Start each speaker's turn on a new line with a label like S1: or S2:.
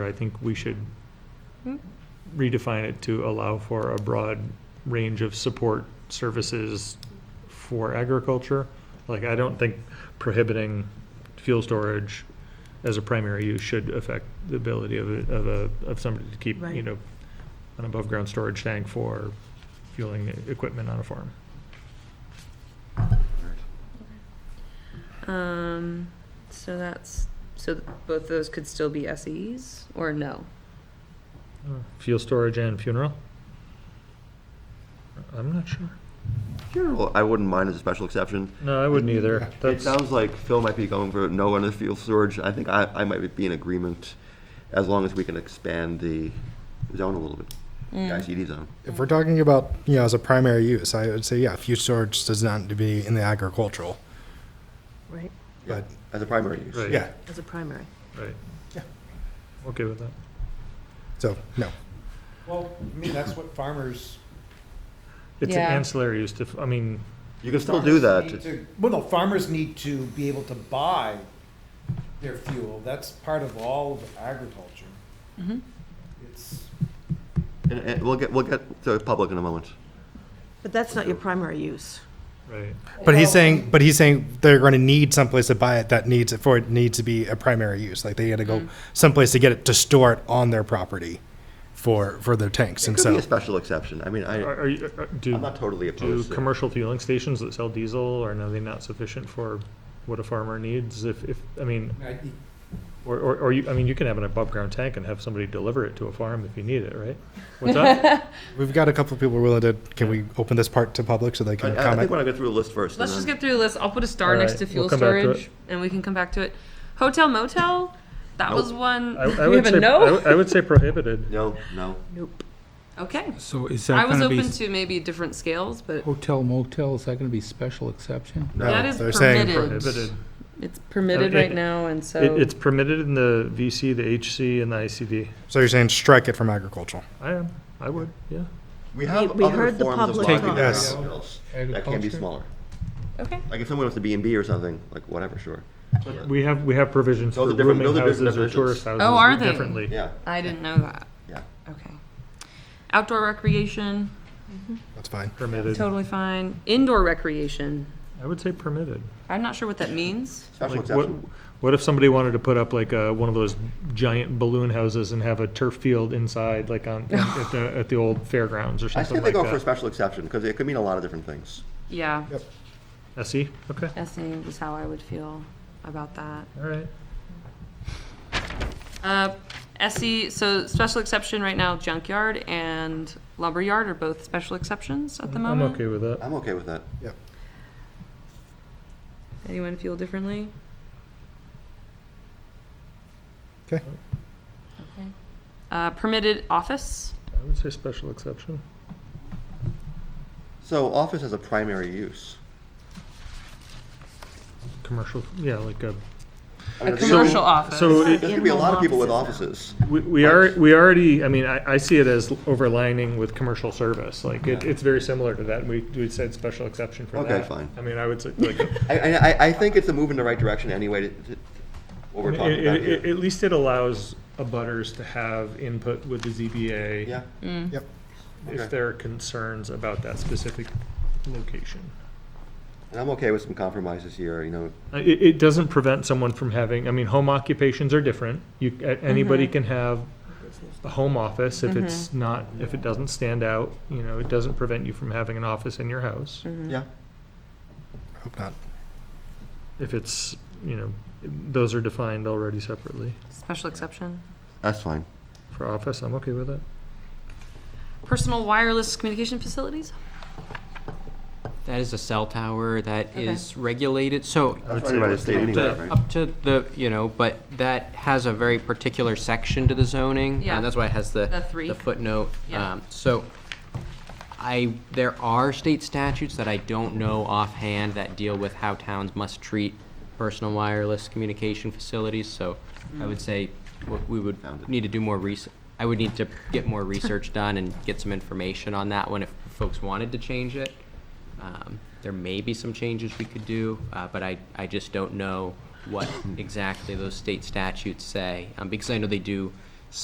S1: I think we should redefine it to allow for a broad range of support services for agriculture. Like, I don't think prohibiting fuel storage as a primary use should affect the ability of a, of a, of somebody to keep, you
S2: Right.
S1: know, an above-ground storage tank for fueling equipment on a farm.
S2: Um, so that's, so both those could still be SEs or no?
S1: Fuel storage and funeral? I'm not sure.
S3: Funeral, I wouldn't mind as a special exception.
S1: No, I wouldn't either.
S3: It
S1: That's,
S3: sounds like Phil might be going for no under fuel storage. I think I, I might be in agreement as long as we can expand the zone a little bit, the
S4: Mm.
S3: ICD zone.
S5: If we're talking about, you know, as a primary use, I would say, yeah, fuel storage does not need to be in the agricultural.
S4: Right,
S5: But,
S3: As a primary use.
S1: Right.
S5: yeah,
S4: as a primary.
S1: right.
S5: Yeah.
S1: Okay with that.
S5: so, no.
S6: Well, I mean, that's what farmers.
S1: It's an
S2: Yeah.
S1: ancillary use to, f- I mean,
S3: You can still do
S6: farmers need
S3: that.
S6: to- Well, no, farmers need to be able to buy their fuel. That's part of all of agriculture.
S2: Mm-hmm.
S6: It's,
S3: And, and we'll get, we'll get to public in a moment.
S4: But that's not your primary use.
S1: right,
S5: But he's
S3: um,
S5: saying, but he's saying they're going to need someplace to buy it that needs it for it needs to be a primary use. Like they got to
S3: Mm-hmm.
S5: go someplace to get it to store it on their property for for their tanks.
S3: It
S5: And
S3: could be
S5: so,
S3: a special exception. I mean, I,
S1: are, are you, are- do,
S3: I'm not totally
S1: do
S3: opposed. to-
S1: commercial fueling stations that sell diesel, or are they not sufficient for what a farmer needs? If, if, I mean,
S6: I-
S1: or, or, or you, I mean, you can have an above-ground tank and have somebody deliver it to a farm if you need it, right? What's that?
S5: we've got a couple of people willing to. Can we open this part to public so they
S3: I,
S5: can
S3: I
S5: comment?
S3: think when I go through a list first.
S2: Let's
S3: and
S2: just
S3: then-
S2: get through this. I'll put a star next
S1: Alright,
S2: to fuel
S1: we'll come back to
S2: storage and we can come back to it. Hotel motel, that was one.
S1: I, I
S2: we
S1: would say,
S2: have a
S1: I
S2: no?
S1: would- I would say prohibited.
S3: No, no.
S2: Okay.
S7: So is
S2: I
S7: that
S2: was
S7: gonna
S2: open
S7: be
S2: to maybe different scales, but
S7: hotel motel, is that gonna be special exception?
S2: that is
S5: Oh, they're saying
S2: permitted.
S1: Prohibited.
S2: It's permitted
S1: Uh, it-
S2: right now and so.
S1: It, it's permitted in the VC, the HC, and the ICD.
S5: So you're saying strike it from agricultural.
S1: I am, I would, yeah.
S3: We have
S4: we
S3: other
S4: heard the
S3: forms of
S4: public
S3: lodging
S5: talk.
S3: that are
S5: Yes.
S3: hotels that can be
S7: Agriculture?
S3: smaller.
S2: Okay.
S3: Like if someone wants to B and B or something, like whatever, sure. But-
S1: We have, we have provisions
S3: Those
S1: for
S3: are different-
S1: rooming
S3: those are
S1: houses
S3: different
S1: or tourist houses.
S2: Oh,
S3: definitions.
S2: are they?
S1: Differently.
S3: Yeah,
S2: I didn't know that.
S3: yeah.
S2: Okay. Outdoor recreation,
S5: That's fine.
S1: Permitted.
S2: totally fine. Indoor recreation,
S1: I would say permitted.
S2: I'm not sure what that means.
S3: Special
S1: Like what,
S3: exception.
S1: what if somebody wanted to put up like uh one of those giant balloon houses and have a turf field inside, like on, at the, at the old fairgrounds or
S3: I
S1: something
S3: think they
S1: like
S3: go for a
S1: that?
S3: special exception, because it could mean a lot of different things.
S2: Yeah,
S1: SE, okay,
S2: essay was how I would feel about that.
S1: all right.
S2: Uh, SE, so special exception right now, junkyard and lumberyard are both special exceptions at the
S1: I'm
S2: moment.
S1: okay with that.
S3: I'm okay with that.
S2: Anyone feel differently?
S5: Okay.
S2: Okay. Uh, permitted office,
S1: I would say special exception.
S3: So office has a primary use.
S1: Commercial, yeah, like a,
S3: I
S2: a
S3: mean, there's-
S2: commercial office.
S1: Uh, so it-
S3: There's gonna be a lot of people with
S4: In-home
S3: offices.
S1: we, we are, we already, I mean, I, I see it as overlining with commercial service. Like it, it's very similar to that. We, we said special exception for that.
S3: Okay, fine.
S1: I mean, I would say like,
S3: I, I, I- I think it's a move in the right direction anyway, to, to- what we're
S1: It-
S3: talking about
S1: it-
S3: here.
S1: it- At least it allows abutters to have input with the ZBA.
S3: Yeah,
S2: Mm,
S5: Yep.
S3: okay.
S1: If there are concerns about that specific location.
S3: and I'm okay with some compromises here, you know,
S1: Uh, It, it doesn't prevent someone from having, I mean, home occupations are different. You, a- anybody can have a home office if it's not, if it doesn't stand out. You know, it doesn't prevent you from having an office in your house.
S3: yeah.
S5: Hope not.
S1: If it's, you know, those are defined already separately.
S2: Special exception.
S3: That's fine.
S1: For office, I'm okay with it.
S2: Personal wireless communication facilities?
S8: That is a cell tower that is regulated, so
S3: That's right by the state anyway,
S8: the-
S3: right?
S8: up to the, you know, but that has a very particular section to the zoning. and
S2: Yeah.
S8: That's why it has the.
S2: The three.
S8: footnote.
S2: Yeah.
S8: Um, So I, there are state statutes that I don't know offhand that deal with how towns must treat personal wireless communication facilities, so I would say w- we would
S3: Found it.
S8: need to do more research. I would need to get more research done and get some information on that one if folks wanted to change it. Um, There may be some changes we could do, uh, but I, I just don't know what exactly those state statutes say, um, because I know they do